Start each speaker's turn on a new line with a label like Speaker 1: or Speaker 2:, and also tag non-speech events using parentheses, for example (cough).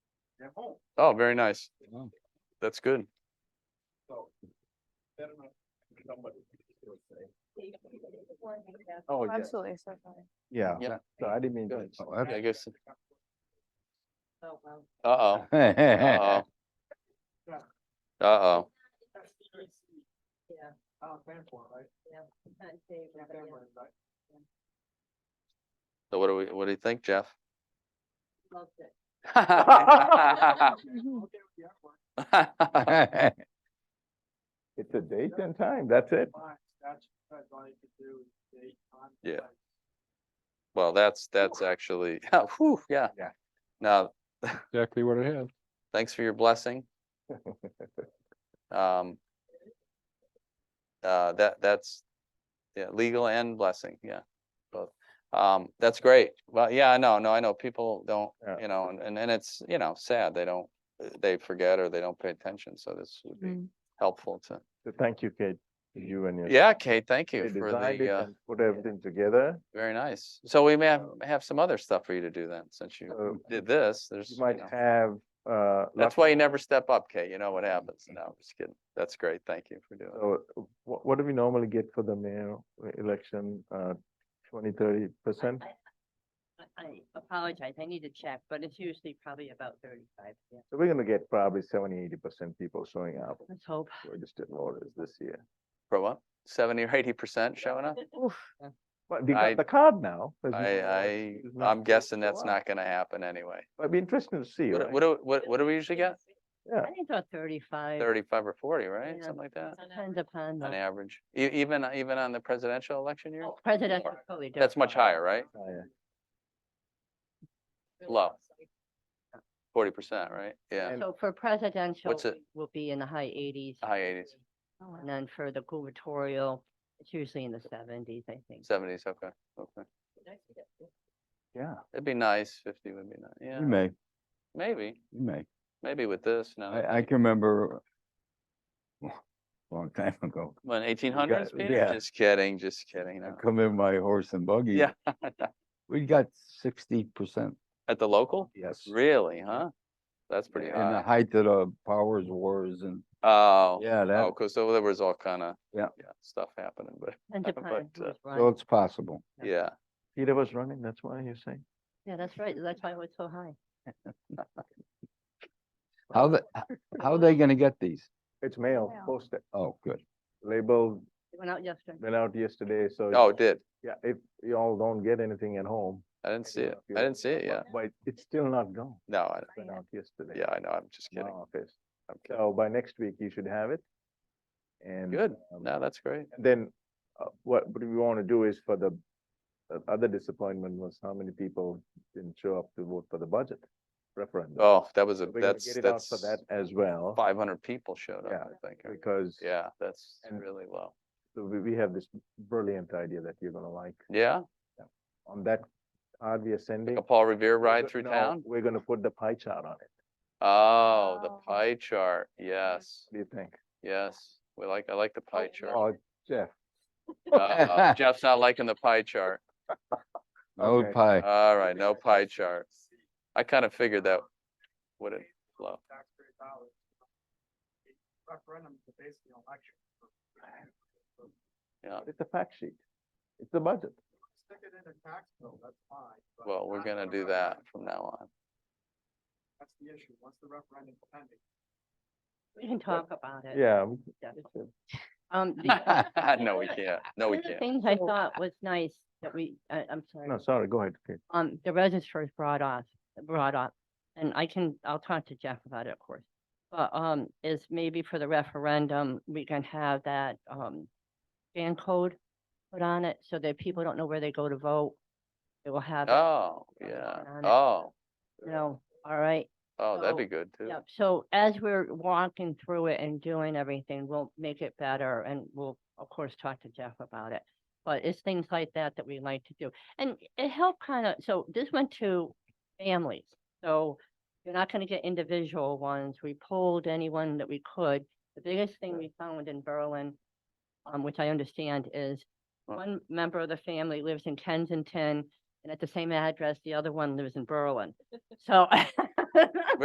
Speaker 1: their home,
Speaker 2: Oh, very nice.
Speaker 3: Wow.
Speaker 2: That's good.
Speaker 1: so. Better not somebody would say.
Speaker 3: Oh, yeah,
Speaker 4: Absolutely, so funny.
Speaker 3: yeah.
Speaker 2: Yeah.
Speaker 3: that- So I didn't mean.
Speaker 2: Good.
Speaker 3: Oh, that's-
Speaker 2: I guess,
Speaker 4: Oh, wow.
Speaker 2: uh-oh,
Speaker 3: (laughs)
Speaker 2: uh-oh. Uh-oh.
Speaker 4: Yeah.
Speaker 1: Uh, Vanport, right?
Speaker 4: Not Dave,
Speaker 1: Yeah,
Speaker 4: but yeah.
Speaker 1: Vanport, right?
Speaker 2: So what do we, what do you think,
Speaker 3: (laughs)
Speaker 2: Jeff? (laughs)
Speaker 4: Loved it.
Speaker 5: Mm-hmm.
Speaker 1: Okay, yeah, well,
Speaker 5: (laughs)
Speaker 3: It's a date and time, that's it.
Speaker 1: fine, that's what I wanted to do, date, time,
Speaker 2: Yeah.
Speaker 1: place.
Speaker 2: Well, that's, that's actually, (laughs) whew, yeah.
Speaker 3: Yeah.
Speaker 2: Now,
Speaker 3: Exactly what it had.
Speaker 2: thanks for your
Speaker 3: (laughs)
Speaker 2: blessing. Um. Uh, that, that's, yeah, legal and blessing, yeah, both. Um, that's great. Well, yeah, I know, no, I know, people don't,
Speaker 3: Yeah.
Speaker 2: you know, and, and and it's, you know, sad, they don't, they forget or they don't pay attention, so this would be
Speaker 4: Mm.
Speaker 2: helpful to.
Speaker 3: So thank you, Kate, you and your.
Speaker 2: Yeah, Kate, thank
Speaker 3: They
Speaker 2: you for
Speaker 3: designed it
Speaker 2: the, uh,
Speaker 3: and Put everything together.
Speaker 2: very nice. So we may have, have some other stuff for you to do then, since
Speaker 3: So
Speaker 2: you did this, there's.
Speaker 3: You might
Speaker 2: know.
Speaker 3: have, uh.
Speaker 2: That's
Speaker 3: lucky-
Speaker 2: why you never step up, Kate, you know what happens. No, I'm just kidding. That's great, thank you for doing it.
Speaker 3: So what, what do we normally get for the mayor election? Uh, twenty, thirty percent?
Speaker 4: I- I- I apologize, I need to check, but it's usually probably about thirty-five, yeah,
Speaker 3: So we're gonna get probably seventy, eighty percent people showing up,
Speaker 4: let's hope.
Speaker 3: registered voters this year.
Speaker 2: For what? Seventy or eighty percent showing up?
Speaker 3: But they
Speaker 2: I-
Speaker 3: got the card now. there's no more
Speaker 2: I,
Speaker 3: excuse
Speaker 2: I,
Speaker 3: not
Speaker 2: I'm
Speaker 3: to
Speaker 2: guessing
Speaker 3: show
Speaker 2: that's
Speaker 3: up.
Speaker 2: not gonna happen anyway.
Speaker 3: It'd be interesting to see,
Speaker 2: What,
Speaker 3: right?
Speaker 2: what, do- what, what do we usually get?
Speaker 3: Yeah.
Speaker 4: I think about thirty-five.
Speaker 2: Thirty-five or forty, right?
Speaker 4: Yeah.
Speaker 2: Something like that,
Speaker 4: Depends upon
Speaker 2: on
Speaker 4: the
Speaker 2: average. E- even, even on the presidential election year?
Speaker 4: Oh, presidential.
Speaker 2: More.
Speaker 4: totally
Speaker 2: That's much
Speaker 4: different.
Speaker 2: higher, right?
Speaker 3: Oh, yeah.
Speaker 2: Low. Forty percent, right? Yeah,
Speaker 3: And-
Speaker 4: So for presidential,
Speaker 2: What's it-
Speaker 4: we will be in the high eighties,
Speaker 2: high eighties,
Speaker 4: and then for the gubernatorial, it's usually in the seventies, I think.
Speaker 2: seventies, okay, okay.
Speaker 3: Yeah.
Speaker 2: It'd be nice, fifty would be nice, yeah,
Speaker 5: You may,
Speaker 2: maybe,
Speaker 5: you may.
Speaker 2: maybe with this,
Speaker 3: Oh,
Speaker 2: no,
Speaker 5: I, I can remember a long time ago,
Speaker 2: when eighteen hundreds, Peter?
Speaker 5: yeah.
Speaker 2: Just kidding, just kidding,
Speaker 5: I
Speaker 2: no.
Speaker 5: come in my horse and buggy.
Speaker 2: Yeah.
Speaker 5: We got sixty percent.
Speaker 2: At the local?
Speaker 3: Yes.
Speaker 2: Really, huh? That's pretty
Speaker 5: In the
Speaker 2: high.
Speaker 5: height of the powers wars and,
Speaker 2: Oh.
Speaker 5: yeah,
Speaker 2: Oh,
Speaker 5: that,
Speaker 2: cause so there was all kind of.
Speaker 5: Yeah.
Speaker 2: Stuff happening, but
Speaker 4: Depends upon
Speaker 2: But, uh,
Speaker 4: who's
Speaker 5: so
Speaker 4: running.
Speaker 5: it's possible.
Speaker 4: Yeah.
Speaker 2: yeah,
Speaker 3: Peter was running, that's why you're saying.
Speaker 4: Yeah, that's right, that's why it was so high.
Speaker 5: How the, h- how are they gonna get these?
Speaker 3: It's mail,
Speaker 4: Mail.
Speaker 3: posted,
Speaker 5: Oh, good.
Speaker 3: labeled,
Speaker 4: It went out yesterday.
Speaker 3: went out yesterday, so.
Speaker 2: oh, it did.
Speaker 3: Yeah, if y'all don't get anything at home.
Speaker 2: I didn't see it.
Speaker 3: you-
Speaker 2: I didn't see it yet.
Speaker 3: But it's still not gone.
Speaker 2: No, I,
Speaker 3: Went out yesterday.
Speaker 2: yeah, I know. I'm just
Speaker 3: in my
Speaker 2: kidding.
Speaker 3: Office.
Speaker 2: I'm kidding.
Speaker 3: So by next week, you should have it. And.
Speaker 2: Good.
Speaker 3: um,
Speaker 2: No, that's great.
Speaker 3: and Then, uh, what, what we want to do is for the, the other disappointment was how many people didn't show up to vote for the budget referendum.
Speaker 2: Oh, that was
Speaker 3: So
Speaker 2: a,
Speaker 3: We're gonna
Speaker 2: that's,
Speaker 3: get it out for
Speaker 2: that's
Speaker 3: that as well,
Speaker 2: five hundred people showed
Speaker 3: Yeah,
Speaker 2: up, I think. or-
Speaker 3: because.
Speaker 2: Yeah, that's
Speaker 3: and-
Speaker 2: really low.
Speaker 3: So we, we have this brilliant idea that you're gonna like.
Speaker 2: Yeah,
Speaker 3: On that card we are sending.
Speaker 2: a Paul Revere
Speaker 3: we're
Speaker 2: ride
Speaker 3: go-
Speaker 2: through
Speaker 3: no,
Speaker 2: town.
Speaker 3: We're gonna put the pie chart on it.
Speaker 2: Oh, the
Speaker 4: Wow.
Speaker 2: pie chart. Yes,
Speaker 3: What do you think?
Speaker 2: yes. We like, I like the pie chart.
Speaker 3: Oh, Jeff, (laughs)
Speaker 2: Uh-oh, Jeff's not liking the pie chart.
Speaker 5: Oh,
Speaker 3: Okay.
Speaker 5: pie.
Speaker 2: All right, no pie chart. I kind of figured that would have flow.
Speaker 1: Taxpayer dollars. Referendum is basically an election.
Speaker 3: it's a fact sheet. It's the budget.
Speaker 1: Stick it in a tax bill, that's fine. but
Speaker 2: Well, we're
Speaker 1: not
Speaker 2: gonna
Speaker 1: the
Speaker 2: do that
Speaker 1: referendum.
Speaker 2: from now on.
Speaker 1: That's the issue, once the referendum is pending.
Speaker 4: We can talk about it.
Speaker 3: Yeah. we-
Speaker 4: Yeah.
Speaker 3: we should.
Speaker 2: (laughs)
Speaker 4: Um, the-
Speaker 2: No, we can't. No, we
Speaker 4: one of the (laughs)
Speaker 2: can't.
Speaker 4: Things I thought was nice that we, I, I'm sorry.
Speaker 3: Oh. No, sorry, go ahead. Kate.
Speaker 4: um, the registrar's brought off, brought up, and I can, I'll talk to Jeff about it, of course. But, um, is maybe for the referendum, we can have that, um, scan code put on it so that people don't know where they go to vote. They will have, it,
Speaker 2: Oh,
Speaker 4: That's
Speaker 2: yeah.
Speaker 4: going on it.
Speaker 2: Oh,
Speaker 4: you know, all right,
Speaker 2: oh, that'd be
Speaker 4: So,
Speaker 2: good too.
Speaker 4: yep. So as we're walking through it and doing everything, we'll make it better and we'll, of course, talk to Jeff about it. But it's things like that that we like to do. And it helped kind of, so this went to families. So you're not going to get individual ones. We pulled anyone that we could. The biggest thing we found in Berlin, um, which I understand is
Speaker 2: Right.
Speaker 4: one member of the family lives in (laughs) Kensington and at the same address, the other one lives in Berlin. So